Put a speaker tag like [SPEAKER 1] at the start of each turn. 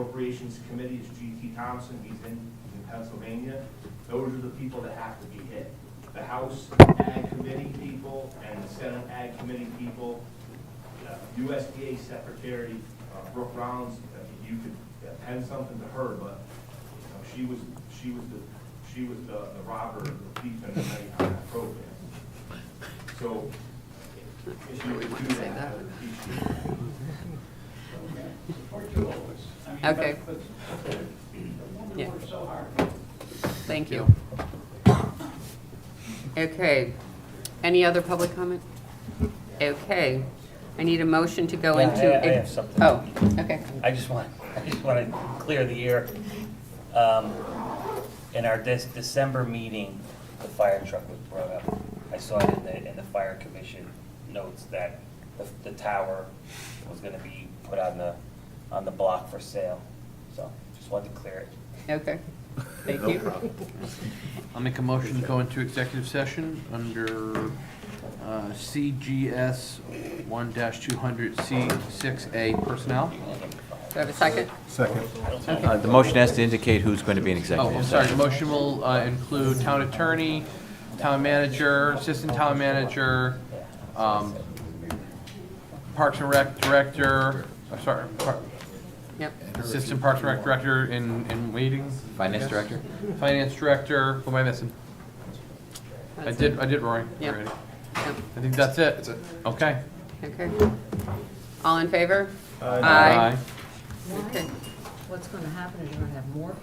[SPEAKER 1] Appropriations Committee is G.T. Thompson, he's in, in Pennsylvania. Those are the people that have to be hit. The House Ag Committee people and the Senate Ag Committee people, uh, USDA Secretary uh, Brooke Rounds, I mean, you could uh, pen something to her, but you know, she was, she was the, she was the the robber, the thief in the night on that program. So if you would do that,
[SPEAKER 2] Say
[SPEAKER 1] I
[SPEAKER 2] that.
[SPEAKER 1] would appreciate it.
[SPEAKER 3] Or two of us. I mean,
[SPEAKER 2] Okay.
[SPEAKER 3] but- but The
[SPEAKER 2] Yeah.
[SPEAKER 3] woman worked so hard.
[SPEAKER 2] Thank you. Okay. Any other public comment? Okay. I need a motion to go
[SPEAKER 4] Yeah, I-
[SPEAKER 2] into.
[SPEAKER 4] I have something.
[SPEAKER 2] Oh, okay.
[SPEAKER 4] I just want, I just want to clear the air. Um, In our Dec- December meeting, the fire truck was brought up. I saw it in the, in the fire commission notes that the, the tower was going to be put on the, on the block for sale. So just wanted to clear it.
[SPEAKER 2] Okay. Thank you.
[SPEAKER 5] I'll make a motion to go into executive session under uh, CGS 1-200C6A personnel.
[SPEAKER 2] Do I have a second?
[SPEAKER 6] Second.
[SPEAKER 2] Okay.
[SPEAKER 7] Uh, The motion has to indicate who's going to be in
[SPEAKER 5] Oh,
[SPEAKER 7] executive
[SPEAKER 5] I'm sorry,
[SPEAKER 7] session.
[SPEAKER 5] the motion will uh, include town attorney, town manager, assistant town manager, um, Parks and Rec director, I'm sorry, Par-
[SPEAKER 2] Yep.
[SPEAKER 5] assistant Parks and Rec director in, in waiting. I
[SPEAKER 7] Finance
[SPEAKER 5] guess.
[SPEAKER 7] director?
[SPEAKER 5] Finance director, who am I missing? I
[SPEAKER 2] That's
[SPEAKER 5] did,
[SPEAKER 2] it.
[SPEAKER 5] I did Rory
[SPEAKER 2] Yep.
[SPEAKER 5] already.
[SPEAKER 2] Yep.
[SPEAKER 5] I think that's it. Okay.
[SPEAKER 2] Okay. All in favor?
[SPEAKER 5] Aye.
[SPEAKER 2] Okay.
[SPEAKER 8] What's gonna happen is you're gonna have more people